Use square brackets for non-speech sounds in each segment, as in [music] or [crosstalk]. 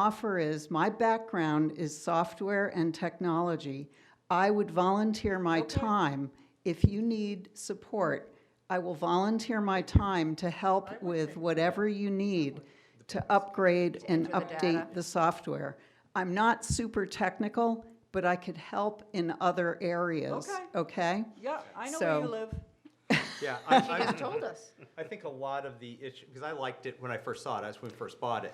offer is my background is software and technology. I would volunteer my time. If you need support, I will volunteer my time to help with whatever you need to upgrade and update the software. I'm not super technical, but I could help in other areas. Okay. Okay? Yeah, I know where you So- live. Yeah, I, He's I, told us. I think a lot of the issue, because I liked it when I first saw it, that's when we first bought it.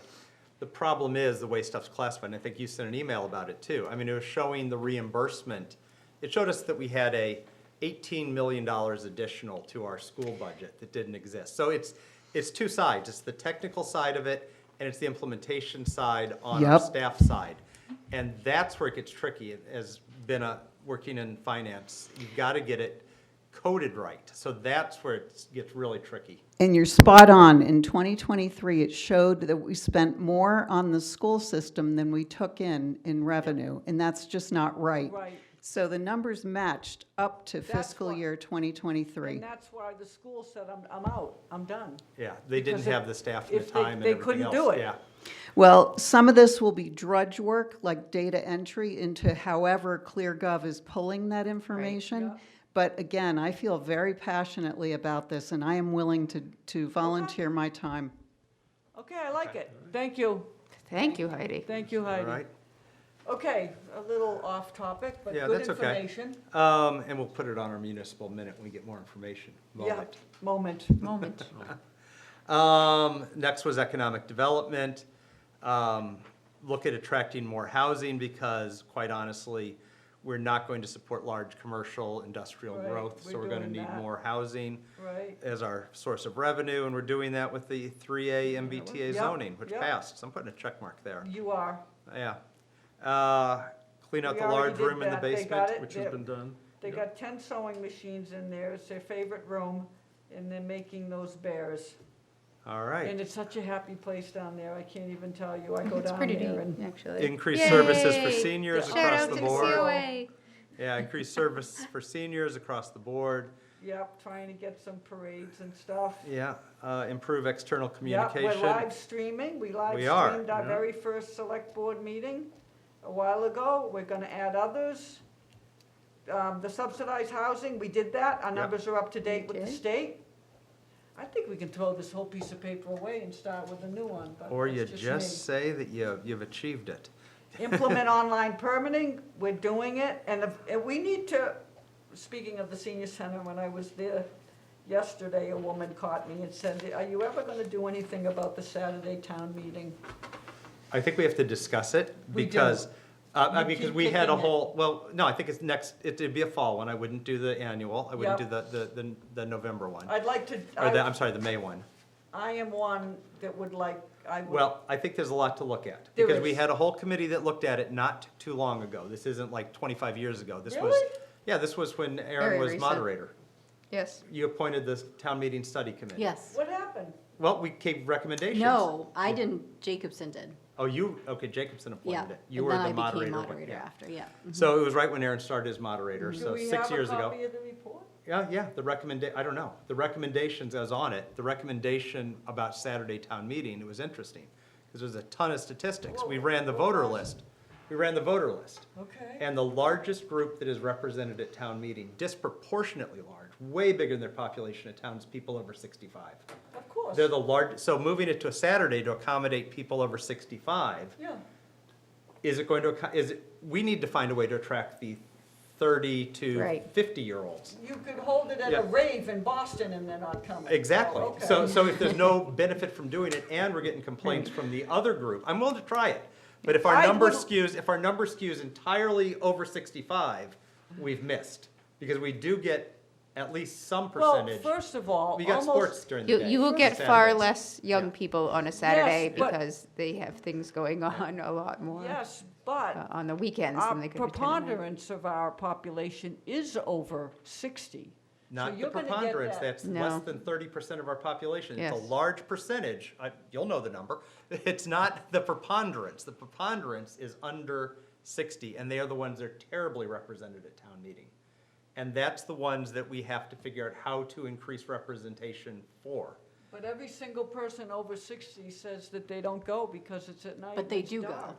The problem is the way stuff's classified, and I think you sent an email about it too. I mean, it was showing the reimbursement. It showed us that we had a eighteen million dollars additional to our school budget that didn't exist. So it's, it's two sides, it's the technical side of it, and it's the implementation side on our Yep. staff side. And that's where it gets tricky, as been a, working in finance, you've got to get it coded right. So that's where it gets really tricky. And you're spot on. In 2023, it showed that we spent more on the school system than we took in, in revenue, and that's just not right. Right. So the numbers matched up to That's fiscal why- year 2023. And that's why the school said, I'm, I'm out, I'm done. Yeah, they didn't Because if- have the staff and the if they- time and they everything couldn't else. do it. Yeah, Well, some of this will be drudge work, like data entry into however ClearGov is pulling that information. But again, I feel very passionately about this, and I am willing to, to volunteer my time. Okay, I like it. Thank you, [laughs] Thank you, Heidi. thank you, all Heidi. right. Okay, a little off topic, but Yeah, good that's okay. information. Um, and we'll put it on our municipal minute when we get more information. Yeah, Moment. moment. Moment. Um, next was economic development. Um, look at attracting more housing because quite honestly, we're not going to support large commercial industrial Right, growth, so we're we're gonna doing need that. more housing [laughs] Right, as our source of revenue, and we're doing that with the three A Yep, MBTA zoning, which yep. passed, so I'm putting a check mark there, you are. yeah. Uh, clean out We the already large did room in the that. They got basement, it. which They- has been done. They got 10 sewing machines in there, it's their favorite room, and they're making those bears. All And right, it's such a happy place down there, I can't even tell you. I go It's down pretty there neat, and, actually. increased services for Yay. seniors Yeah. Shout across out the to the board. COA. Yeah, increased service for seniors across the board, yep, trying to get some parades and stuff. yeah, uh, improve external Yeah, communication. we're live streaming, we live We are, streamed our yeah. very first select board meeting a while ago, we're gonna add others. Um, the subsidized housing, we did that, our Yep. numbers are up to date with the Okay. state. I think we can throw this whole piece of paper away and start with a new one, but Or you that's just me. just say that you, you've achieved it. implement online permitting, we're doing it, and if, and we need to, speaking of the senior center, when I was there yesterday, a woman caught me and said, are you ever gonna do anything about the Saturday town meeting? I think we have to discuss it We do. because, uh, I You mean, because keep we had a kicking it. whole, well, no, I think it's next, it'd be a fall one. I wouldn't do the annual. I wouldn't do Yep. the, the, the, the November one. I'd like to, Or the, I, I'm sorry, the May one. I am one that would like, I would. Well, I think there's a lot to look at. There Because we is. had a whole committee that looked at it not too long ago. This isn't like twenty-five years ago. This was, Really? yeah, this was when Aaron Very was recent. moderator. Yes. You appointed the town meeting study committee. Yes. What happened? Well, we gave recommendations. No, I didn't, Jacobson did, Oh, you, okay, Jacobson yeah. appointed it. You and were then I the became moderator. when- Moderator yeah. after, yeah. Mm-hmm. So it was right when Aaron started as moderator, so uh, Mm-hmm. six years Do we have a ago. copy of the report? Yeah, yeah, the recommend, I don't know. The recommendations, I was on it, the recommendation about Saturday town meeting, it was interesting. Because there's a ton of statistics. We ran the voter list. We ran the voter list. Okay. And the largest group that is represented at town meeting, disproportionately large, way bigger than their population of towns, people over sixty-five. Of course, They're the largest, so moving it to a Saturday to accommodate people over sixty-five yeah. is it going to, acco- is it, we need to find a way to attract the thirty to Right. fifty-year-olds. You could hold it at a Yeah. rave in Boston and they're not coming. Oh, Exactly. Okay. So, so if there's [laughs] no benefit from doing it and we're getting complaints from the other group, I'm willing to try it. But if our I number would- skews, if our number skews entirely over sixty-five, we've missed. Because we do get at least some Well, percentage. first of all, We got sports almost, during the You, day. you will on get far Saturdays. less Yeah. young people on a Saturday but- because they have things going [laughs] on a lot more yes, uh, but on the weekends than Our they could attend. preponderance of our population is over 60. Not the you're gonna get preponderance, that. that's less No. than thirty percent of our population. It's a Yes. large percentage, I, you'll know the number. [laughs] It's not the preponderance, the preponderance is under sixty, and they are the ones that are terribly represented at town meeting. And that's the ones that we have to figure out how to increase representation for. But every single person over sixty says that they don't go because it's at night. But and they it's do go. dark.